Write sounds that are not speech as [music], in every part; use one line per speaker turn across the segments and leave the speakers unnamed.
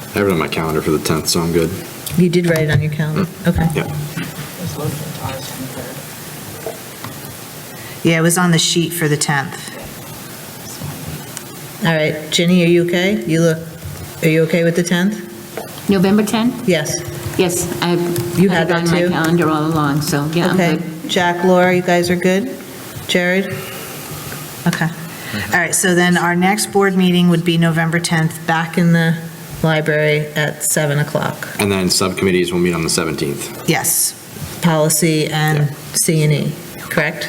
I have it on my calendar for the 10th, so I'm good.
You did write it on your calendar, okay.
Yeah.
Yeah, it was on the sheet for the 10th.
All right, Ginny, are you okay? You look, are you okay with the 10th?
November 10th?
Yes,
Yes, I've.
You had
had it
that
on
too?
my calendar all along, so, yeah, I'm
okay.
good.
Jack, Laura, you guys are good? Jared? Okay,
All right, so then our next board meeting would be November 10th.
back in the library at 7 o'clock.
And then subcommittees will meet on the 17th.
Yes,
Policy and C and E, correct?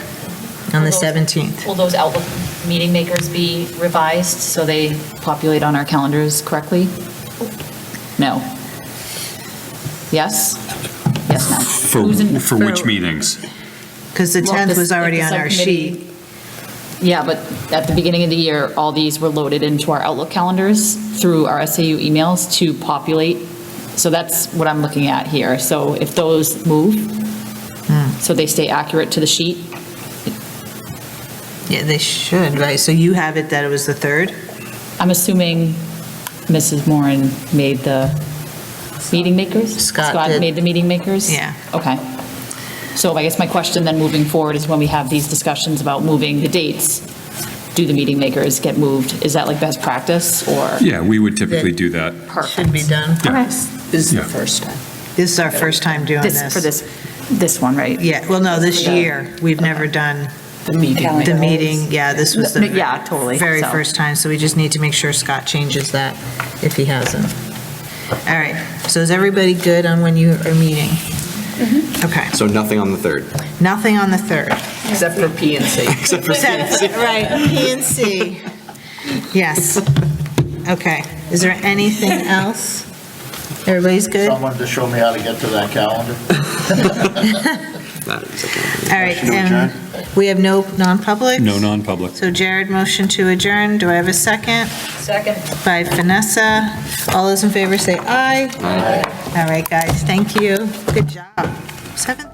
On the
Those-
17th.
Will those Outlook meeting makers be revised so they populate on our calendars correctly?
Oh.
No. Yes? Yes, no.
For,
Who's in-
for which meetings?
because the
Well,
10th
this-
was already
the
on our
subcommittee-
sheet.
Yeah, but at the beginning of the year, all these were loaded into our Outlook calendars through our SAU emails to populate. So that's what I'm looking at here. So if those move,
Hmm.
so they stay accurate to the sheet,
Yeah, they should, right? So you have it that it was the 3rd?
I'm assuming Mrs. Moran made the meeting makers?
Scott did.
made the meeting makers?
Yeah.
Okay. So I guess my question then moving forward is when we have these discussions about moving the dates, do the meeting makers get moved? Is that like best practice or?
Yeah, we would typically do that.
Should be done.
Yeah.
This is
the Yeah.
first time.
This is our first time doing
This,
this.
for this, this one, right?
Yeah, well, no, this
Yeah.
year. We've never done
The meeting.
the meeting. Yeah, this was the.
Yeah, totally.
Very
So-
first time, so we just need to make sure Scott changes that if he hasn't. All right, so is everybody good on when you are meeting?
Mm-hmm.
Okay,
So nothing on the 3rd.
nothing on the 3rd.
Except for P and C.
[laughs] Except
[laughs]
for CNC.
Right, P and C. Yes. Okay, is there anything else? Everybody's good? All
Someone to show me how to get to that calendar?
That is okay.
right,
Motion to
and we have no non-publics?
No non-public.
So Jared, motion to adjourn. Do I have a second?
Second.
By Vanessa. All those in favor say aye. All right, guys, thank you. Good job. Seven.